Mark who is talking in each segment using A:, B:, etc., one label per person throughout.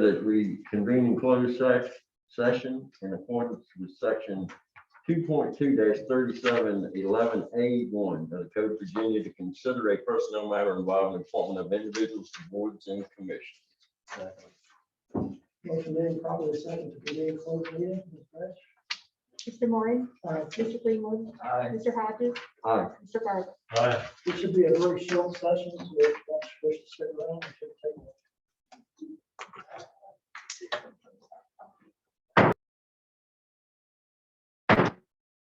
A: that we convene in closed sec- session in accordance with section two point two thirty-seven eleven A one of the Code of Virginia to consider a personnel matter involving appointment of individuals to boards and commissions.
B: Motion made, probably second to convene closed meeting. Ms. Branch?
C: Mr. Moore,
B: All right,
C: Mr. Greenwood, Mr. Hodges,
A: Aye.
C: Mr. Garber.
B: This should be a very short session, so if that's supposed to sit around, it should take. Call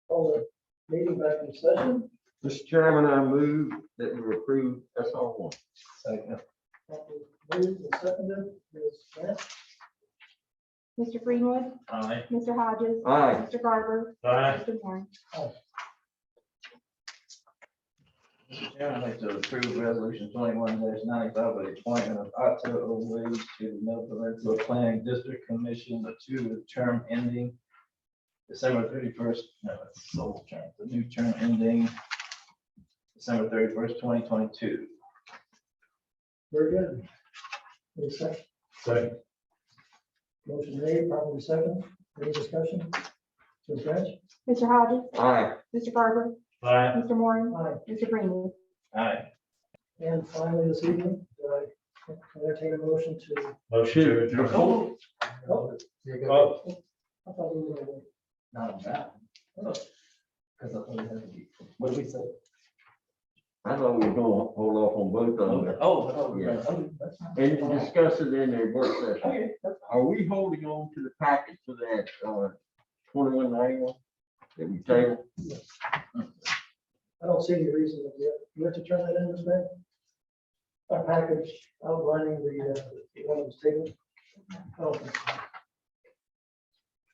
B: the meeting back in session.
A: Mr. Chairman, I move that we approve SR one.
B: Properly Moved and seconded, Ms. Branch?
C: Mr. Greenwood,
D: Aye.
C: Mr. Hodges,
A: Aye.
C: Mr. Garber,
D: Aye.
C: Mr. Moore.
D: Chairman, I'd like to approve resolution twenty-one ninety-five, with the appointment of Otto Owens to the Middle Peninsula Planning District Commission, the two term ending December thirty-first, no, it's the old term, the new term ending December thirty-first, twenty twenty-two.
B: Very good. Any second?
D: Second.
B: Motion made, probably second. Any discussion? Ms. Branch?
C: Mr. Hodges,
A: Aye.
C: Mr. Garber,
D: Aye.
C: Mr. Moore,
B: Aye.
C: Mr. Greenwood.
D: Aye.
B: And finally, this evening, I entertain a motion to.
A: Motion to adjourn.
B: Oh,
D: You're
B: I thought we were gonna-
D: Not on that. Because I thought it had to be, what did we say?
A: I thought we were gonna hold off on both of them.
D: Oh, I thought we were gonna- oh, that's not-
A: And to discuss it in a work session.
D: Okay, that's-
A: Are we holding on to the packet for that, uh, twenty-one ninety-one? That we table?
B: I don't see any reason that we, you have to turn that in, Ms. Mayor? A package outlining the, uh, the items taken. Okay.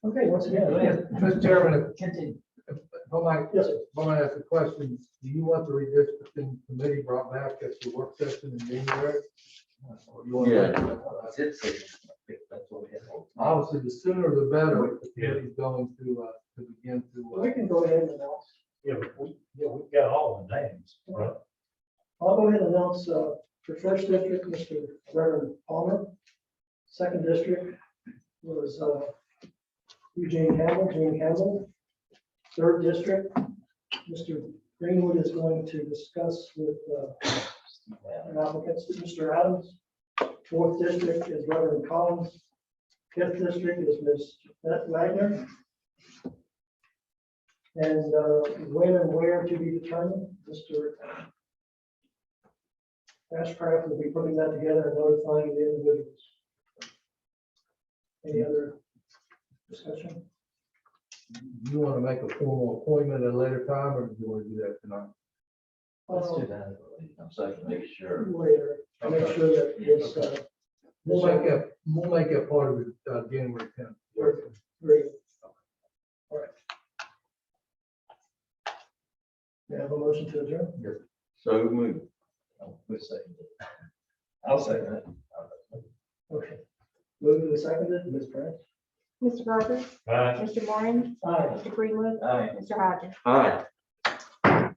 B: Okay, once
D: Yeah, go
B: again.
D: ahead.
E: Mr. Chairman, Well, I,
B: Yes, sir.
E: well, I ask a question. Do you want the redistricting committee brought back at the work session in January? Or you want that-
D: That's it, so that's what we had.
E: Obviously, the sooner the better, if the committee's going to, uh, to begin to, uh,
B: we can go ahead and announce.
F: Yeah, but we, yeah, we've got all the names, right?
B: I'll go ahead and announce, uh, for first district, Mr. Reverend Palmer. Second district was, uh, Eugene Campbell, Gene Campbell. Third district, Mr. Greenwood is going to discuss with, uh, an applicant, Mr. Adams. Fourth district is Reverend Collins. Fifth district is Ms. Beth Wagner. And, uh, when and where to be determined, Mr. Ashcraft will be putting that together and notifying the individuals. Any other discussion?
E: you want to make a formal appointment at a later time, or do you want to do that tonight?
D: Let's do that. I'm sorry, to make sure.
B: Later, to make sure that it's, uh,
E: We'll make that, we'll make that part of it, uh, January tenth.
B: Perfect. great. All right. Do you have a motion to adjourn?
A: So moved.
D: I'll we'll say that. I'll say that.
B: Okay. Moving to seconded, Ms. Branch.
C: Mr. Garber,
F: Aye.
C: Mr. Moore,
B: Aye.
C: Mr. Greenwood,
D: Aye.
C: Mr. Hodges.
A: Aye.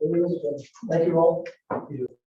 B: It is, uh, Thank you all.